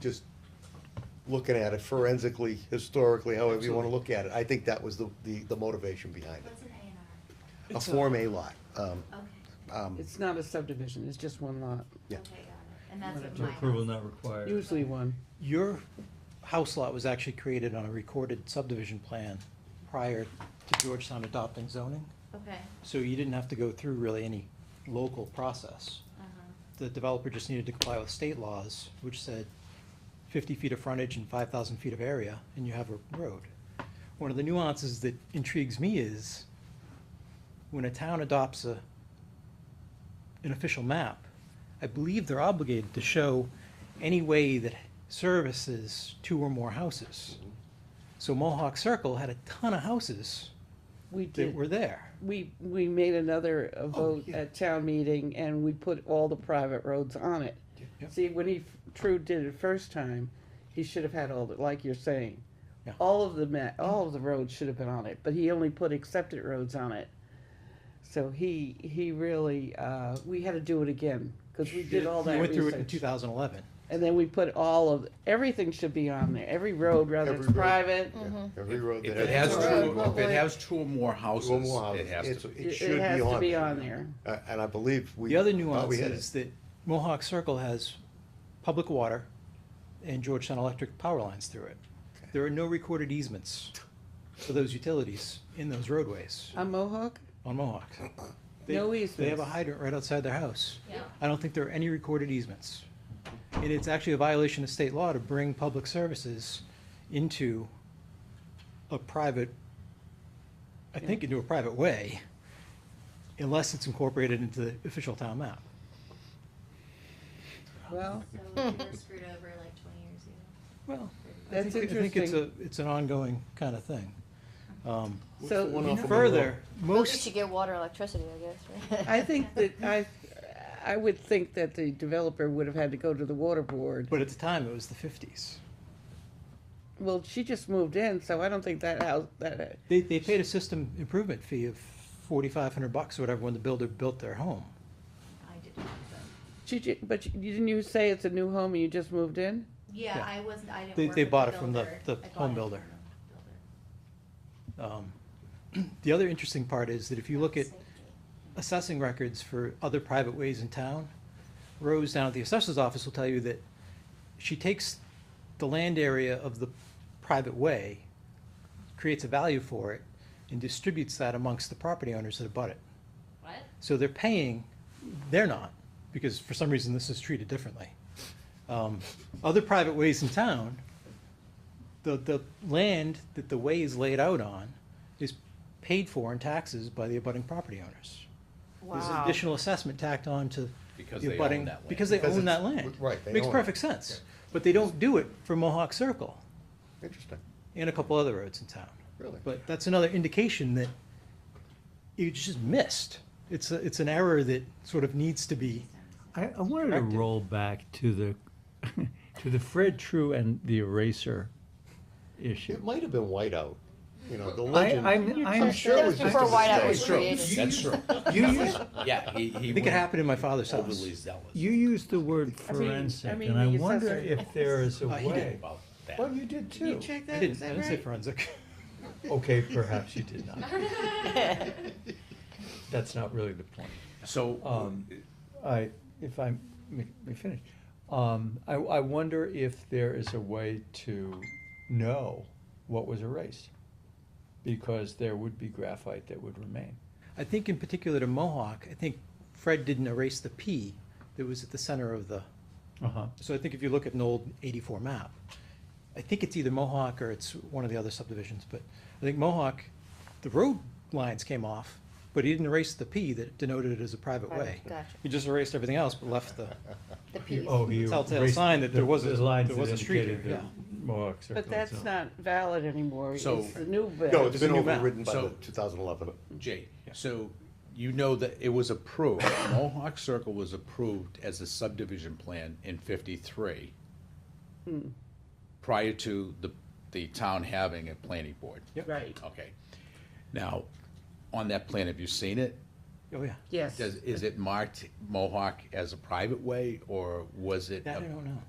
just looking at it forensically, historically, however you wanna Absolutely. look at it, I think that was the, the, the motivation behind What's an A it. A It's a- Form A lot, um, and R? Okay, um, It's not a subdivision, it's just one lot, Yeah. okay, got it. And that's what To mine. approval was. not required. usually one. Your house lot was actually created on a recorded subdivision plan prior to Georgetown adopting zoning, Okay, so you didn't have to go through really any local process. uh-huh, The developer just needed to comply with state laws, which said fifty feet of frontage and five thousand feet of area, and you have a road. One of the nuances that intrigues me is when a town adopts a, an official map, I believe they're obligated to show any way that services two or more houses. So Mohawk Circle had a ton of houses We that did, were there. we, we made another uh, Oh, vote yeah. at town meeting and we put all the private roads on it. Yep. See, when he, True did it first time, he should have had all, the like you're saying. Yeah. All of the ma, all of the roads should have been on it, but he only put accepted roads on it. So he, he really, uh, we had to do it again, cause we did all that We went through it in research. two thousand eleven. And then we put all of, everything should be on there, every road, whether Every road. Mm. it's private, every road If that it has It's a road, two, if public. it has two or more Two or houses, more it houses, has it's, to. it it should it has to be be on on there. there. Uh, and I believe we. The other thought nuance we had is it. that Mohawk Circle has public water and Georgetown Electric power lines through it. There are no recorded easements for those utilities in those roadways On Mohawk? on Mohawk. They- No They have a easements. hydrant right outside their house. yeah. I don't think there are any recorded easements. And it's actually a violation of state law to bring public services into a private, I think into a private way, unless it's incorporated into the official town map. Well, So we were screwed over like twenty years ago. Well, I That's think, I think it's a, interesting. it's an ongoing kind of thing. Um, What's the one so off of Monroe? Further, Well, you most, should get water, electricity, I guess, right? I think that I, I would think that the developer would have had to go to the water board. but at the time, it was the fifties. Well, she just moved in, so I don't think that house, that, uh, They, they paid a system improvement fee of forty-five hundred bucks or whatever when the builder built their home. I did not, but, she, ju- but you- didn't you say it's a new home and you just moved in? yeah, Yeah. I wasn't, I didn't They- work they with bought it from the- builder. the I home bought it from builder. the builder. Um, The other interesting part is that if you look at assessing records for other private ways in town, Rose down at the assessor's office will tell you that she takes the land area of the private way, creates a value for it, and distributes that amongst the property owners that abut it. What? So they're paying, they're not, because for some reason this is treated differently. Um, Other private ways in town, the, the land that the way is laid out on is paid for in taxes by the abutting property owners. There's an Wow. additional assessment tacked on to Because the they own abutting, that land. because they Because own it's- that land. right, they Makes own it. perfect sense, but they don't do it for Mohawk Circle Interesting, and a couple other roads in town. really. But that's another indication that you just missed. It's, a, it's an error that sort of needs to be, I, I wanted to Corrected. roll back to the, to the Fred True and the eraser It issue. might have been whiteout, you know, the I, legend. I'm, I'm. sure it was That was just a before Whiteout mistake. was created. That's true. Yeah, he, he I think it went happened in my father's house. overly zealous You used the word I mean- I forensic, mean, and I the wonder assessor- if there is a Uh, he did. way. about that. Well, you did Did you too. check I that, is didn't, I that didn't say right? forensic. Okay, perhaps you did not. That's not really the point. So, Um, I, if I may may finish, um, I, I wonder if there is a way to know what was erased. Because there would be graphite that would remain. I think in particular to Mohawk, I think Fred didn't erase the P that was at the center of the, Uh-huh. so I think if you look at an old eighty-four map, I think it's either Mohawk or it's one of the other subdivisions, but I think Mohawk, the road lines came off, but he didn't erase the P that denoted it as a private Private, way. gotcha. He just erased everything else but left the. The piece. Oh, he Telltale erased sign that there the- was a- the lines there that was a street indicated there, the yeah. Mohawk Circle. But that's itself. not valid anymore, it's So- the new bill. No, it's been new map. overridden by So- the two thousand eleven. Jay, so you know that it was approved, Mohawk Circle was approved as a subdivision plan in fifty-three prior to the, the town having a planning board. Right, Okay. Now, on that plan, have you seen it? Oh, yeah. yes. Does, is it marked Mohawk as a private way, or was it? That I don't know.